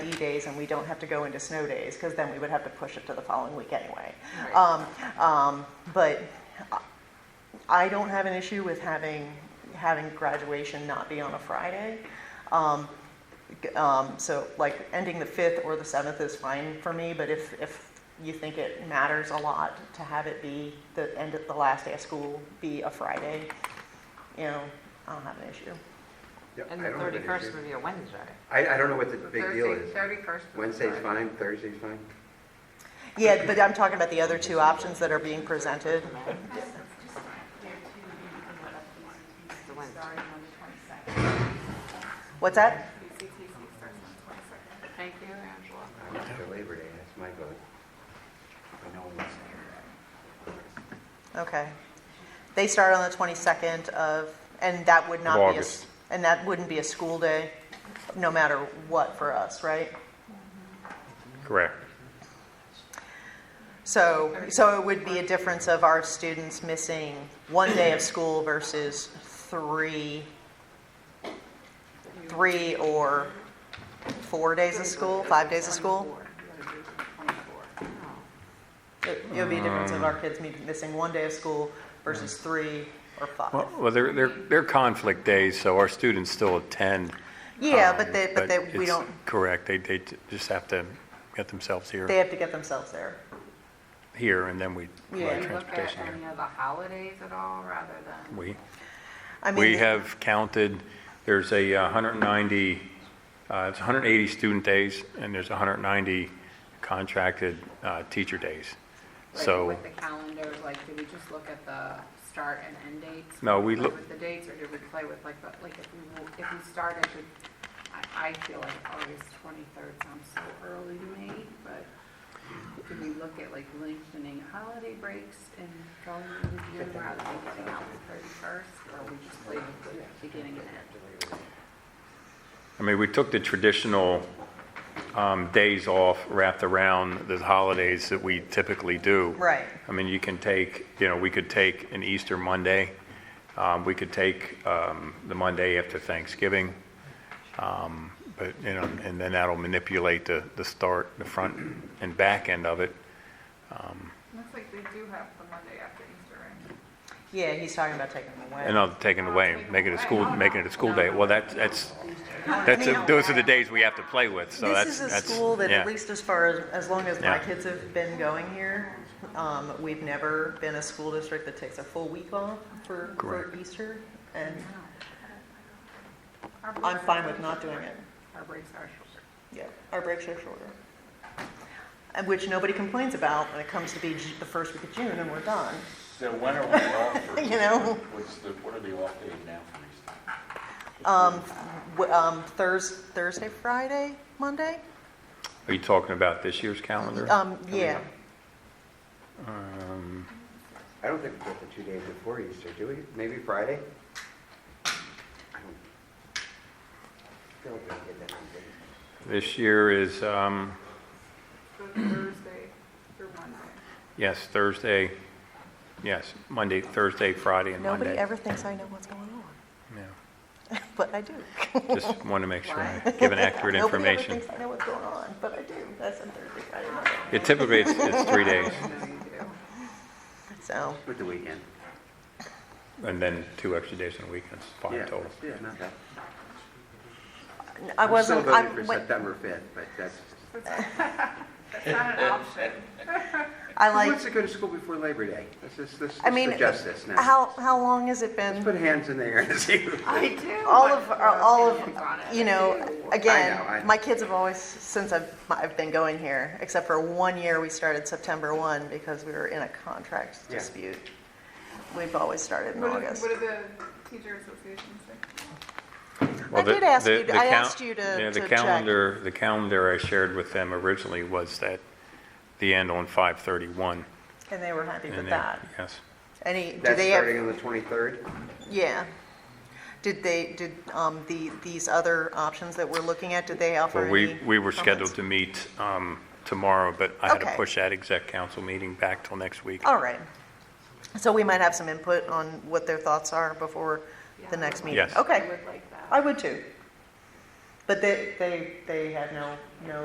days and we don't have to go into snow days, because then we would have to push it to the following week anyway. Um, um, But I don't have an issue with having, having graduation not be on a Friday. Um, g- um, So like ending the 5th or the 7th is fine for me, but if, if you think it matters a lot to have it be the end of the last day of school be a Friday, you know, I don't have an issue. Yeah, And I the don't have an issue. thirty-first would be a Wednesday. I, I don't know what the big deal is. Thirty-first. Wednesday's fine, Thursday's fine. Yeah, but I'm talking about the other two options that are being presented. The Wednesday. What's that? Thank you, Angela. I'm after Labor Day, that's my vote. I know what's there. Okay. They start on the 22nd of, and that would not be a... s- Of August. And that wouldn't be a school day, no matter what for us, right? Correct. So, so it would be a difference of our students missing one day of school versus three, three or four days of school, five days of school? It it would be a difference Mm. of our kids me- missing one day of school versus three or five. Well, well, they're, they're, they're conflict days, so our students still attend. Yeah, um, but they, but they, we it's don't, Correct. They, they t- just have to get themselves they here, have to get themselves there. here, and then we Yeah. provide Do you look at transportation any here. of the holidays at all, rather than? We, I mean, we the- have counted, there's a uh, 190, uh, it's 180 student days, and there's 190 contracted uh, teacher days. Like So, With the calendar, like, did we just look at the start and end dates? No, we Play look- With the dates, or did we play with like, the- like if we, wo- if we started with, I, I feel like August 23rd sounds so early to me, but did we look at like lengthening holiday breaks and going through the year rather than getting out the 31st? Or we just played with the beginning and end? I mean, we took the traditional um, days off wrapped around the holidays that we typically do. Right. I mean, you can take, you know, we could take an Easter Monday. Um, we could take um, the Monday after Thanksgiving. Um, but, you know, and then that'll manipulate the, the start, the front and back end of it. Looks like they do have the Monday after Easter, right? Yeah, he's talking about taking them away. And uh, I'll take it away and make it a school, making it a school day. Well, that's, that's, that's, I mean- those are the days we have to play with. So this that's, is a that's- school that, yeah. at least as far as, as long as my Yeah. kids have been going here, um, we've never been a school district that takes a full week off for, for Correct. Easter. And Our I'm breaks- fine with not doing it. Our breaks are shorter. Yeah, our breaks are shorter. And which nobody complains about when it comes to be Ju- the first week of June and we're done. So when are we off for? You know. What's the, what are the off days now for Um, w- um, Thurs, Thursday, Friday, Monday? Are you talking about this year's calendar? Um, yeah. Um, I don't think we've got the two days before Easter, do we? Maybe Friday? I don't- I don't think we get that many days. This year is, um, So Thursday through Monday. yes, Thursday, yes, Monday, Thursday, Friday, and Monday. Nobody ever thinks I know what's going on, Yeah, but I do. Just want to make sure I'm giving accurate Nobody information. ever thinks I know what's going on, but I do. That's on Thursday, Friday, Monday. Yeah, Typically, it's it's three days, So, With the weekend. and then two extra days on weekends, Yeah, five total. Yeah, not bad. n- I wasn't, I'm still I, voting for wait, September 5th, but that's, That's not an option. I who wants like, to go to school before Labor Day? Let's just, let's I let's mean, adjust this now. how, how long has it Let's been? put hands in the air and see. who- I do. All of, uh, all opinions of, on it. you know, I know, I again, know. my kids have always, since I've, I've been going here, except for one year, we started September one because we were in a contract Yeah. dispute. We've always started in What do- August. What do the teacher associations say? Well, the- did ask the- you- the I cal- asked you to- yeah, to The check. calendar, the calendar I shared with them originally was that the end on 5:31. And they were happy with and they- that. Yes. Any, do That's they have? starting on the 23rd? Yeah. Did they, did um, the, these other options that we're looking at, did they offer Well, any? we, we were comments? scheduled to meet um, tomorrow, but I had to Okay. push that exec council meeting back till next week. All right. So we might have some input on what their thoughts are before the next meeting? Yes. Okay, Would like that. I would too. But they, they, they had no, no